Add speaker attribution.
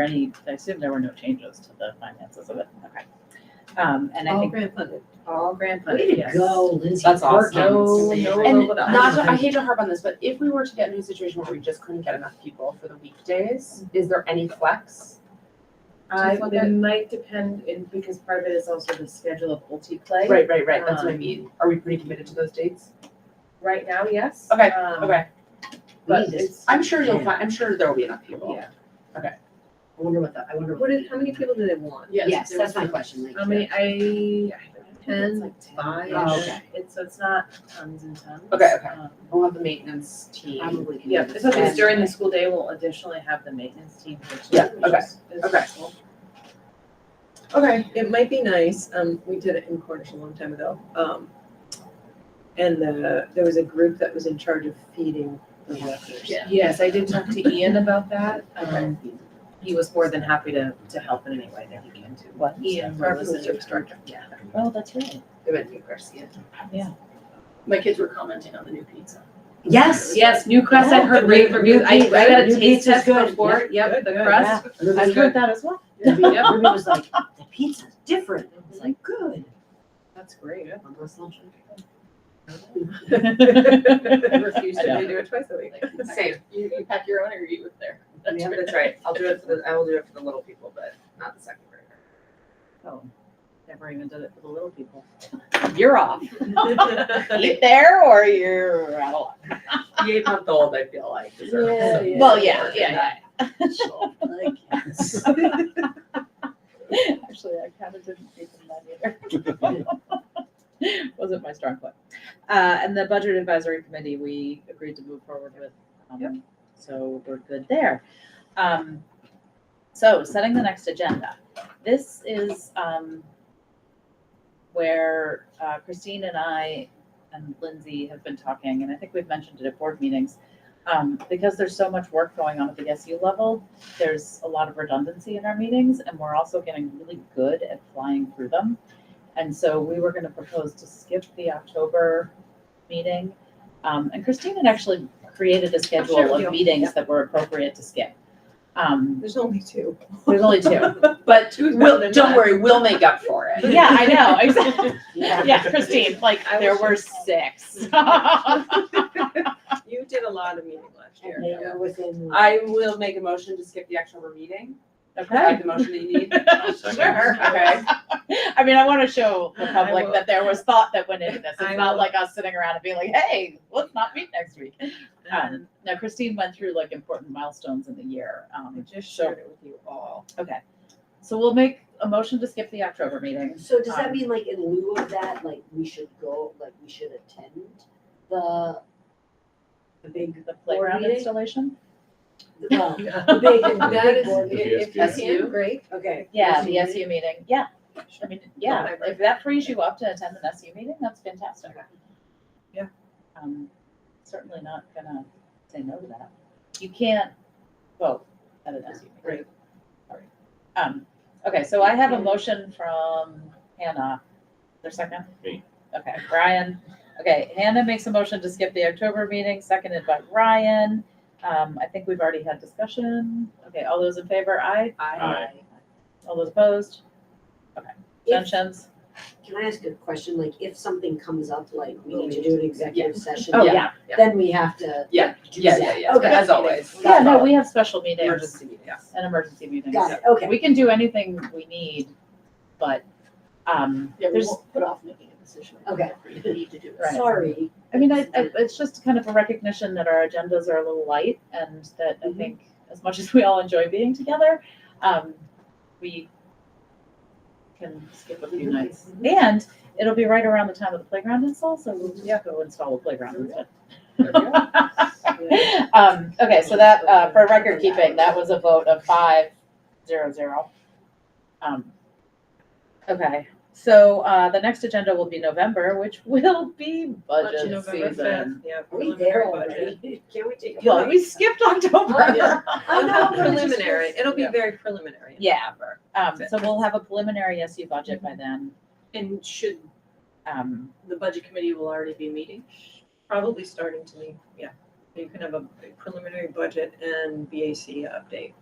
Speaker 1: any, I assume there were no changes to the finances of it, okay. Um, and I
Speaker 2: Oh,
Speaker 3: All
Speaker 1: think
Speaker 3: grant funded.
Speaker 1: all grant funded,
Speaker 4: Way to
Speaker 1: yes.
Speaker 4: go, Lizzie.
Speaker 3: That's
Speaker 4: Work
Speaker 3: awesome.
Speaker 1: No,
Speaker 4: it.
Speaker 1: no,
Speaker 3: And
Speaker 1: no, no.
Speaker 3: not, to- I hate to harp on this, but if we were to get into a situation where we just couldn't get enough people for the weekdays, is there any flex?
Speaker 2: I,
Speaker 3: Just look at-
Speaker 2: it might depend, in because part of it is also the schedule of OT play.
Speaker 3: Right, right, right, that's what I
Speaker 2: Um,
Speaker 3: mean. Are we pretty committed to those dates?
Speaker 2: Right now, yes.
Speaker 3: Okay,
Speaker 2: Um,
Speaker 3: Okay,
Speaker 2: But
Speaker 4: We just-
Speaker 2: it's,
Speaker 3: I'm sure you'll find, I'm sure there will be enough people.
Speaker 2: yeah.
Speaker 4: I wonder what the, I wonder.
Speaker 2: What is, how many people do they want?
Speaker 4: Yes, that's my question, like.
Speaker 2: How many, I, I don't know,
Speaker 3: It's
Speaker 2: ten,
Speaker 3: like 10.
Speaker 2: five,
Speaker 4: Oh, okay.
Speaker 2: it's, so it's not tons and tons.
Speaker 3: Okay, okay.
Speaker 2: Um,
Speaker 3: We'll have the maintenance team.
Speaker 4: Probably can.
Speaker 2: Yeah,
Speaker 4: do
Speaker 2: so if it's
Speaker 4: this.
Speaker 2: during the school day, we'll additionally have the maintenance team, which is.
Speaker 3: Yeah, okay, okay. Okay.
Speaker 5: It might be nice, um, we did it in Cornish a long time ago, um, and the, there was a group that was in charge of feeding the workers.
Speaker 2: Yes, I did talk to Ian about that, um, he was more than happy to, to help in any way that he can to.
Speaker 1: What?
Speaker 2: Ian,
Speaker 5: Our
Speaker 2: was
Speaker 5: food
Speaker 2: the
Speaker 5: service director.
Speaker 2: Yeah.
Speaker 1: Oh, that's right.
Speaker 3: It went through Garcia.
Speaker 6: My kids were commenting on the new pizza.
Speaker 4: Yes.
Speaker 2: Yes, New Crest, I've heard great reviews, I, I got a taste test before, yep, the
Speaker 5: Good, good,
Speaker 2: crust,
Speaker 4: Ruby
Speaker 1: I
Speaker 4: was
Speaker 1: agree with
Speaker 4: like,
Speaker 1: that as well.
Speaker 4: Ruby
Speaker 2: Yep.
Speaker 4: Ruby was like, the pizza's different. I was like, good.
Speaker 2: that's great.
Speaker 4: On my lunch.
Speaker 5: I refuse
Speaker 1: I
Speaker 5: to
Speaker 1: know.
Speaker 5: redo it twice a week.
Speaker 6: Same, you, you pack your own or you eat with there.
Speaker 3: Yeah, that's right. I'll do it for the, I will do it for the little people, but not the second grader.
Speaker 1: Oh, Never even did it for the little people. You're off. Eat there or you're out of luck.
Speaker 3: The eight month old, I feel like, deserves
Speaker 5: Yeah,
Speaker 3: some
Speaker 5: yeah.
Speaker 1: Well,
Speaker 3: sort
Speaker 1: yeah,
Speaker 3: of
Speaker 1: yeah, yeah.
Speaker 3: financial-
Speaker 4: Like, yes.
Speaker 1: Actually, I kind of didn't think of that either. Wasn't my strong point. Uh, and the budget advisory committee, we agreed to move forward with. um, So we're good there. Um, so setting the next agenda. This is, um, where uh, Christine and I and Lindsay have been talking, and I think we've mentioned it at board meetings. Um, because there's so much work going on at the SU level, there's a lot of redundancy in our meetings and we're also getting really good at flying through them. And so we were gonna propose to skip the October meeting. Um, and Christine had actually created a
Speaker 5: share
Speaker 1: schedule
Speaker 5: with
Speaker 1: of
Speaker 5: you.
Speaker 1: meetings that were appropriate to skip. Um,
Speaker 5: There's only two.
Speaker 1: there's only two, but
Speaker 5: Two's better
Speaker 3: We'll,
Speaker 5: than
Speaker 3: don't
Speaker 5: none.
Speaker 3: worry, we'll make up for it.
Speaker 1: yeah, I know, exactly.
Speaker 4: Yeah.
Speaker 1: Yeah, Christine, like
Speaker 5: I
Speaker 1: there
Speaker 5: was
Speaker 1: were six. I
Speaker 5: You did a lot of meeting last year.
Speaker 4: And they were within.
Speaker 3: I will make a motion to skip the October meeting. Is that the motion that you need?
Speaker 1: Sure.
Speaker 3: Okay.
Speaker 1: mean, I wanna show the
Speaker 5: I
Speaker 1: public
Speaker 5: will-
Speaker 1: that there was thought that went into this. It's
Speaker 5: I
Speaker 1: not
Speaker 5: will-
Speaker 1: like us sitting around and being like, hey, let's not meet next week.
Speaker 5: Um,
Speaker 1: Um, now Christine went through like important milestones in the year.
Speaker 5: I
Speaker 1: Um,
Speaker 5: just
Speaker 1: so-
Speaker 5: shared it with you all.
Speaker 1: so we'll make a motion to skip the October meeting.
Speaker 4: So does that
Speaker 1: Um,
Speaker 4: mean like in lieu of that, like we should go, like we should attend the,
Speaker 1: The big, the playground
Speaker 4: meeting?
Speaker 1: installation?
Speaker 4: the, the
Speaker 5: That
Speaker 4: big, the
Speaker 5: That
Speaker 4: big
Speaker 5: is,
Speaker 4: board meeting?
Speaker 5: if if
Speaker 6: That's
Speaker 5: you
Speaker 6: you?
Speaker 5: can, great.
Speaker 4: Okay.
Speaker 1: Yeah,
Speaker 4: Yes,
Speaker 1: the
Speaker 4: you
Speaker 1: SU meeting, yeah. I mean, yeah,
Speaker 5: Whatever.
Speaker 1: if that frees you up to attend an SU meeting, that's fantastic.
Speaker 5: Yeah.
Speaker 1: Um, certainly not gonna say no to that. You can't vote at an SU meeting. Right. Um, okay, so I have a motion from Hannah. Is there a second?
Speaker 7: Me.
Speaker 1: Okay, Brian. Okay, Hannah makes a motion to skip the October meeting, seconded by Ryan. Um, I think we've already had discussion. Okay, all those in favor, aye?
Speaker 7: Aye.
Speaker 1: All those opposed?
Speaker 4: If-
Speaker 1: Abstentions?
Speaker 4: Can I ask a question? Like if something comes up, like we need to do an executive session.
Speaker 1: Oh,
Speaker 3: Yeah.
Speaker 1: yeah.
Speaker 3: yeah.
Speaker 4: Then we have to.
Speaker 3: Yeah,
Speaker 4: do
Speaker 3: yeah,
Speaker 4: that.
Speaker 3: yeah, yeah,
Speaker 4: Okay.
Speaker 3: as always.
Speaker 1: Yeah,
Speaker 4: Got it.
Speaker 1: no, we have special meetings
Speaker 3: Emergency meeting, yeah.
Speaker 1: and emergency meetings.
Speaker 4: Got it, okay.
Speaker 1: We can do anything we need, but, um,
Speaker 6: Yeah, we
Speaker 1: there's,
Speaker 6: won't put off making a decision.
Speaker 4: Okay.
Speaker 6: We need to do it.
Speaker 1: Right.
Speaker 4: Sorry.
Speaker 1: I mean, I, I, it's just kind of a recognition that our agendas are a little light and that I
Speaker 4: Mhm.
Speaker 1: think as much as we all enjoy being together, um, we can skip a few nights. And it'll be right around the time of the playground install, so we'll just go install the playground instead. Um, okay, so that, uh, for record keeping, that was a vote of five, zero, zero. Um, okay, so, uh, the next agenda will be November, which will be
Speaker 5: Lunch
Speaker 1: budget
Speaker 5: November
Speaker 1: season.
Speaker 5: fifth, yeah.
Speaker 4: Are we
Speaker 5: preliminary
Speaker 4: there
Speaker 5: budget.
Speaker 4: already? Can we take a
Speaker 1: Yeah,
Speaker 4: break?
Speaker 1: we skipped October.
Speaker 4: I
Speaker 5: Oh,
Speaker 4: know, but it's just-
Speaker 5: Preliminary, it'll be
Speaker 1: Yeah.
Speaker 5: very preliminary.
Speaker 1: Yeah, um, so we'll have a preliminary SU budget by then,
Speaker 6: And should,
Speaker 1: um,
Speaker 6: the budget committee will already be meeting?
Speaker 5: Probably starting to me, yeah. You can have a preliminary budget and BAC update.